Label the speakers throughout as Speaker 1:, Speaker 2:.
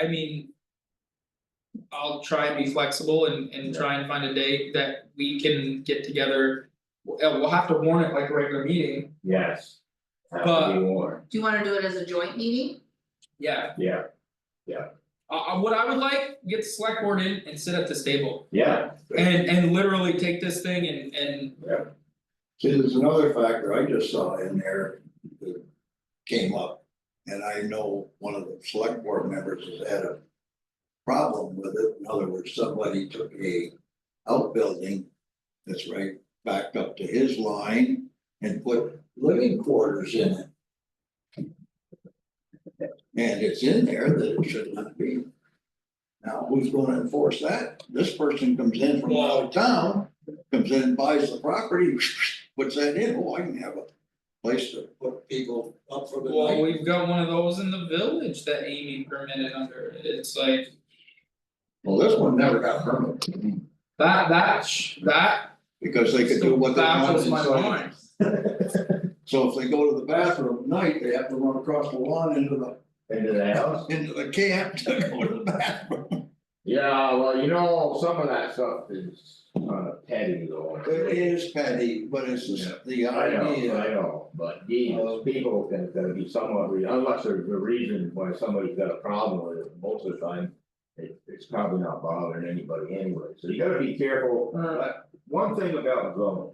Speaker 1: I mean. I'll try and be flexible and and try and find a date that we can get together. We'll uh, we'll have to warn it like a regular meeting,
Speaker 2: Yes. Have to
Speaker 1: But-
Speaker 2: be warned,
Speaker 3: Do you wanna do it as a joint meeting?
Speaker 1: yeah,
Speaker 2: yeah,
Speaker 1: uh uh, what I would like, get the select board in and sit at this table.
Speaker 2: yeah,
Speaker 1: And and literally take this thing and and
Speaker 4: See, there's another factor I just saw in there that came up. And I know one of the select board members has had a problem with it. In other words, somebody took a outbuilding that's right back up to his line and put living quarters in it. And it's in there that it should not be. Now, who's gonna enforce that? This person comes in from out of town comes in, buys the property, puts that in, oh, I can have a place to put people up for the
Speaker 1: well,
Speaker 4: night.
Speaker 1: we've got one of those in the village that Amy permitted under. It's like
Speaker 4: Well, this one never got permit,
Speaker 1: that that sh- that
Speaker 4: because they could do what they want
Speaker 1: baffles
Speaker 4: inside.
Speaker 1: my mind.
Speaker 4: So if they go to the bathroom at night, they have to run across the lawn into the,
Speaker 2: into the house.
Speaker 4: into the camp to go to the bathroom.
Speaker 2: Yeah, well, you know, some of that stuff is kind of petty though.
Speaker 4: It is petty, but it's just the
Speaker 2: I know, I
Speaker 4: idea,
Speaker 2: know, but these people can, can be somewhat, re- unless there's a reason why somebody's got a problem with it, most of the time. It, it's probably not bothering anybody anyway, so you gotta be careful, Uh, one thing about zoning.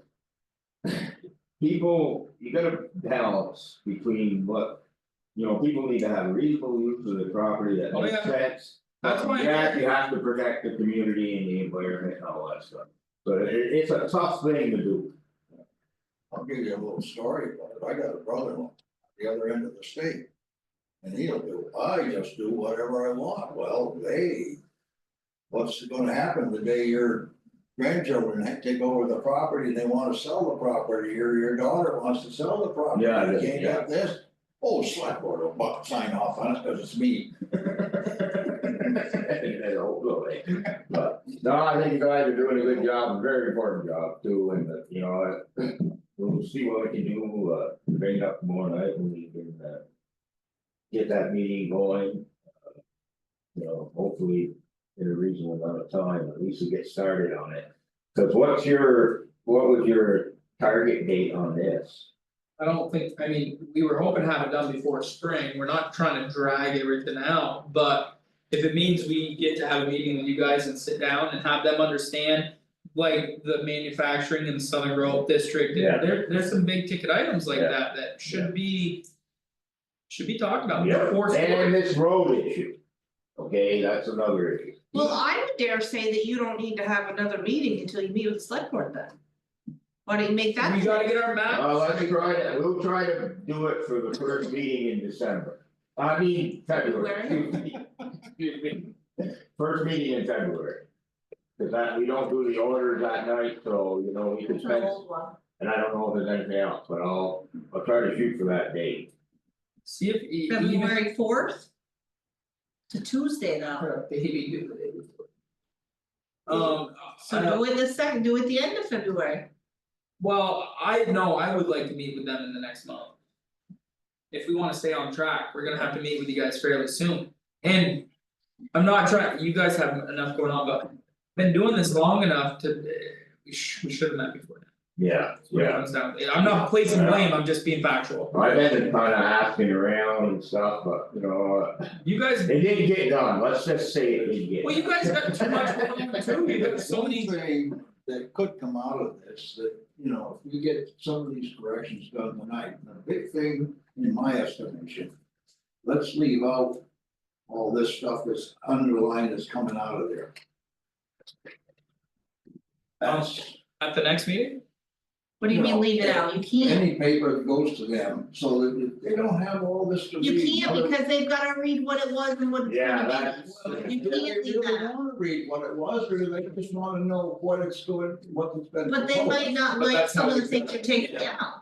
Speaker 2: People, you gotta balance between what, you know, people need to have reasonable use of the property that
Speaker 1: Oh,
Speaker 2: makes
Speaker 1: yeah.
Speaker 2: sense.
Speaker 1: That's why-
Speaker 2: Yeah, you have to protect the community and the environment and all that stuff, but it, it's a tough thing to do.
Speaker 4: I'll give you a little story about it, I got a brother-in-law, the other end of the state. And he'll do, I just do whatever I want, well, they. What's gonna happen the day your grandchildren ha- take over the property, and they wanna sell the property, or your daughter wants to sell the property,
Speaker 2: Yeah,
Speaker 4: you
Speaker 2: yeah,
Speaker 4: can't have this? Oh, select board will buck sign off on it, cause it's me,
Speaker 2: That's hopefully, but no, I think you guys are doing a good job, a very important job too, and uh, you know, uh, we'll see what we can do, uh, to bring it up tomorrow night when we can, uh. Get that meeting going. uh, You know, hopefully in a reasonable amount of time, at least we get started on it. Cause what's your, what was your target date on this?
Speaker 1: I don't think, I mean, we were hoping to have it done before spring, we're not trying to drag everything out, but. If it means we get to have a meeting with you guys and sit down and have them understand. Like the manufacturing in the Southern Grove District,
Speaker 2: Yeah.
Speaker 1: and there there's some big ticket items like
Speaker 2: Yeah.
Speaker 1: that that
Speaker 2: Yeah.
Speaker 1: should be. Should be talked about
Speaker 2: Yeah,
Speaker 1: before spring,
Speaker 2: And this road issue. Okay, that's another issue.
Speaker 3: Well, I would dare say that you don't need to have another meeting until you meet with the select board then. Why don't you make that?
Speaker 1: we gotta get our map.
Speaker 2: Well, let me try to, we'll try to do it for the first meeting in December, I mean, February,
Speaker 3: February.
Speaker 2: excuse me. Excuse me. First meeting in February. Cause that, we don't do the orders that night, so you know, we can
Speaker 3: That's an
Speaker 2: spend,
Speaker 3: old one.
Speaker 2: and I don't know if there's anything else, but I'll, I'll try to shoot for that date.
Speaker 1: See if e- even.
Speaker 3: February fourth? To Tuesday now,
Speaker 1: Baby. Um,
Speaker 3: so
Speaker 1: I-
Speaker 3: do it the second, do it the end of February,
Speaker 1: Well, I know I would like to meet with them in the next month. If we wanna stay on track, we're gonna have to meet with you guys fairly soon, and. I'm not trying, you guys have enough going on, but been doing this long enough to, we sh- we should have met before. now,
Speaker 2: Yeah,
Speaker 1: is what it comes down to. I'm not placing
Speaker 2: Yeah.
Speaker 1: blame, I'm just being factual,
Speaker 2: I've been kinda asking around and stuff, but you know, uh,
Speaker 1: you guys,
Speaker 2: it didn't get done, let's just say it didn't get.
Speaker 1: well, you guys got too much going on too, you got so
Speaker 4: One
Speaker 1: many.
Speaker 4: thing that could come out of this, that, you know, if you get some of these corrections done tonight, the big thing, in my estimation. Let's leave out all this stuff that's underlined that's coming out of there. That's
Speaker 1: At the next meeting,
Speaker 3: what do you mean
Speaker 4: No.
Speaker 3: leave it out, you can't,
Speaker 4: any paper that goes to them, so that they don't have all this to read.
Speaker 3: you can't because they've gotta read what it was and what it's
Speaker 2: Yeah,
Speaker 3: gonna be.
Speaker 2: that's-
Speaker 4: Well,
Speaker 3: You
Speaker 4: they
Speaker 3: can't leave
Speaker 4: really
Speaker 3: that.
Speaker 4: wanna read what it was, or they just wanna know what it's doing, what it's been.
Speaker 3: But they
Speaker 4: proposed.
Speaker 3: might not
Speaker 1: Oh, But
Speaker 3: like
Speaker 1: that's how
Speaker 3: some of the
Speaker 1: we
Speaker 3: things
Speaker 1: do
Speaker 3: you're
Speaker 1: it.
Speaker 3: taking
Speaker 1: Yeah.
Speaker 3: down,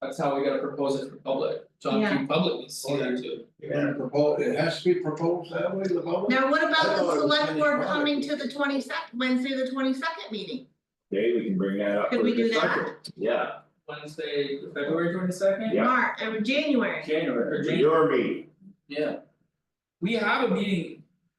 Speaker 1: that's how we gotta propose it for public, John
Speaker 3: Yeah.
Speaker 1: Q. Public needs to see that too.
Speaker 2: Yeah.
Speaker 4: And propose, it has to be proposed that way, the public?
Speaker 3: now what
Speaker 4: I
Speaker 3: about
Speaker 4: thought it
Speaker 3: the
Speaker 4: was
Speaker 3: select
Speaker 4: finished
Speaker 3: board
Speaker 4: product.
Speaker 3: coming to the twenty second, Wednesday, the twenty second meeting?
Speaker 2: Okay, we can bring that up
Speaker 3: Could
Speaker 2: for
Speaker 3: we do
Speaker 2: discussion. Yeah,
Speaker 1: Wednesday, February twenty second?
Speaker 2: Yeah.
Speaker 3: March, or January.
Speaker 1: January, or January.
Speaker 2: your meeting.
Speaker 1: Yeah. We have a meeting